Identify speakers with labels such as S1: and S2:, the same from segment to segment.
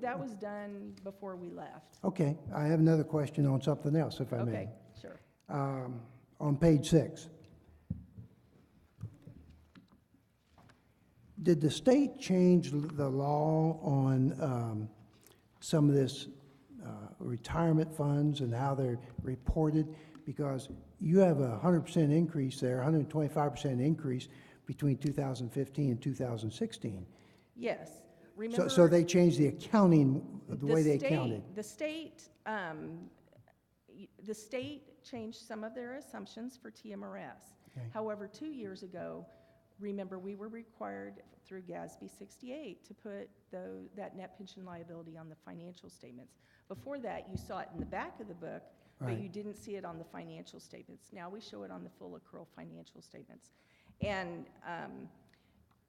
S1: that was done before we left.
S2: Okay, I have another question on something else, if I may.
S1: Okay, sure.
S2: um, on page six. Did the state change l- the law on um, some of this uh, retirement funds and how they're reported? Because you have a hundred percent increase there, hundred and twenty-five percent increase between two thousand fifteen and two thousand sixteen.
S1: Yes.
S2: So,
S1: Remember.
S2: so they changed the accounting, the way they
S1: state-
S2: counted.
S1: The state, um, y- the state changed some of their assumptions for TMRS.
S2: Okay.
S1: However, two years ago, remember, we were required through GASB 68 to put tho- that net pension liability on the financial statements. Before that, you saw it in the back of the book, but
S2: Right.
S1: you didn't see it on the financial statements. Now we show it on the full accrual financial statements. And, um,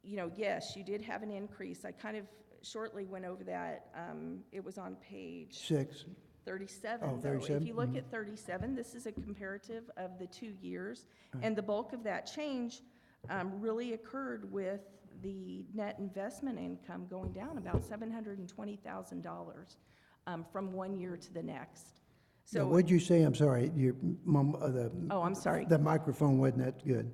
S1: you know, yes, you did have an increase. I kind of shortly went over that. Um, It was on page
S2: Six,
S1: 37.
S2: Oh,
S1: though.
S2: 37,
S1: If you look
S2: mhm.
S1: at 37, this is a comparative of the two years. And the bulk of that change um, really occurred with the net investment income going down about $720,000 um, from one year to the next.
S2: Now,
S1: So,
S2: what'd you say? I'm sorry, your, mum- uh, the.
S1: oh, I'm sorry.
S2: The microphone wasn't that good.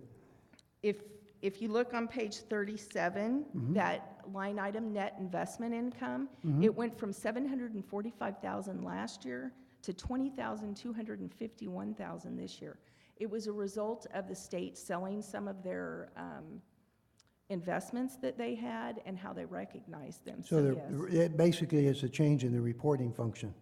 S1: If, if you look on page 37,
S2: Mm-hmm.
S1: that line item, net investment income, it went from 745,000 last year to 20,251,000 this year. It was a result of the state selling some of their um, investments that they had and how they recognized them.
S2: So
S1: yes.
S2: there, it basically is a change in the reporting function,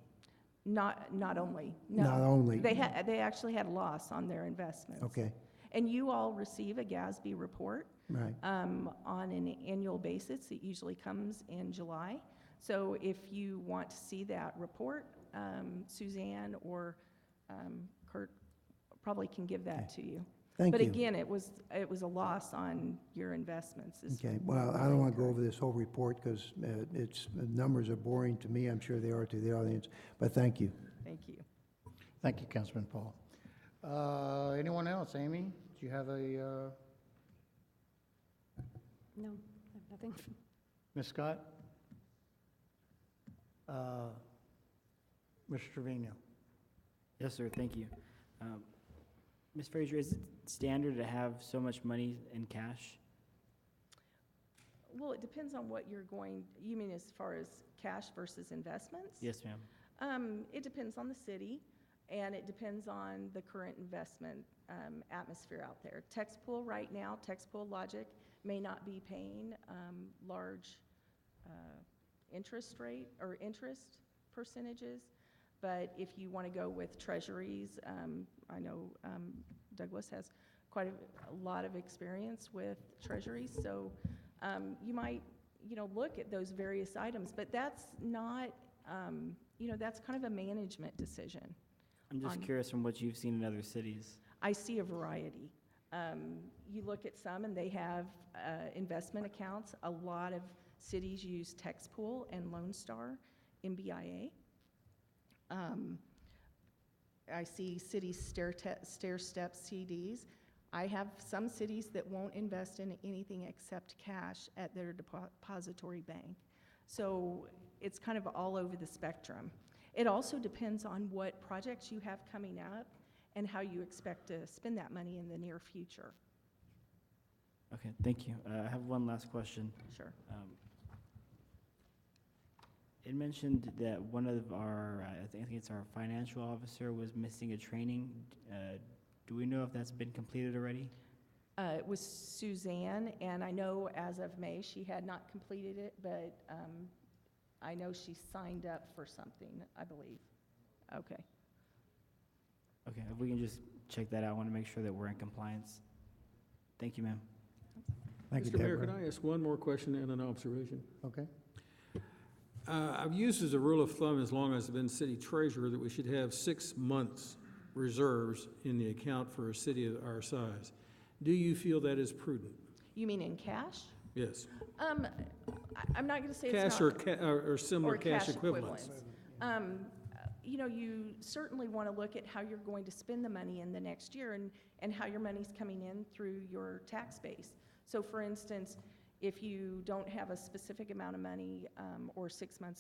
S1: Not, not only,
S2: not
S1: no.
S2: only,
S1: They had, they actually had loss on their investments.
S2: okay,
S1: And you all receive a GASB report.
S2: right.
S1: um, on an annual basis. It usually comes in July. So if you want to see that report, um, Suzanne or um, Kurt probably can give that to you.
S2: Thank
S1: But
S2: you.
S1: again, it was, it was a loss on your investments. is-
S2: Okay, well, I don't want to go over this whole report because it's, the numbers are boring to me, I'm sure they are to the audience, but thank you.
S1: Thank you.
S3: Thank you, Councilman Paul. Uh, Anyone else? Amy, do you have a, uh,
S4: No, I have nothing.
S3: Ms. Scott? Uh, Mr. Trevino?
S5: Yes, sir, thank you. Um, Ms. Frazier, is it standard to have so much money in cash?
S1: Well, it depends on what you're going, you mean as far as cash versus investments?
S5: Yes, ma'am.
S1: Um, it depends on the city, and it depends on the current investment, um, atmosphere out there. Texpool right now, Texpool Logic may not be paying, um, large, uh, interest rate or interest percentages. But if you want to go with treasuries, um, I know, um, Douglas has quite a, a lot of experience with treasuries, so, um, you might, you know, look at those various items, but that's not, um, you know, that's kind of a management decision.
S5: I'm just
S1: On-
S5: curious from what you've seen in other cities.
S1: I see a variety. Um, you look at some and they have, uh, investment accounts. A lot of cities use Texpool and Lone Star, MBIA. Um, I see cities stair te- stair step CDs. I have some cities that won't invest in anything except cash at their depo- depository bank. So it's kind of all over the spectrum. It also depends on what projects you have coming up and how you expect to spend that money in the near future.
S5: Okay, thank you. Uh, I have one last question.
S1: Sure.
S5: Um, It mentioned that one of our, uh, I think I think it's our financial officer was missing a training. Uh, Do we know if that's been completed already?
S1: Uh, it was Suzanne, and I know as of May, she had not completed it, but, um, I know she signed up for something, I believe. Okay.
S5: Okay, if we can just check that out, I want to make sure that we're in compliance. Thank you, ma'am.
S2: Thank you,
S6: Mr. Mayor, could
S2: Deborah.
S6: I ask one more question and an observation?
S3: Okay.
S6: Uh, I've used as a rule of thumb, as long as I've been city treasurer, that we should have six months reserves in the account for a city of our size. Do you feel that is prudent?
S1: You mean in cash?
S6: Yes.
S1: Um, I, I'm not gonna say it's not.
S6: Cash or ca, or or similar
S1: or
S6: cash equivalents?
S1: Um, uh, you know, you certainly want to look at how you're going to spend the money in the next year and, and how your money's coming in through your tax base. So for instance, if you don't have a specific amount of money, um, or six months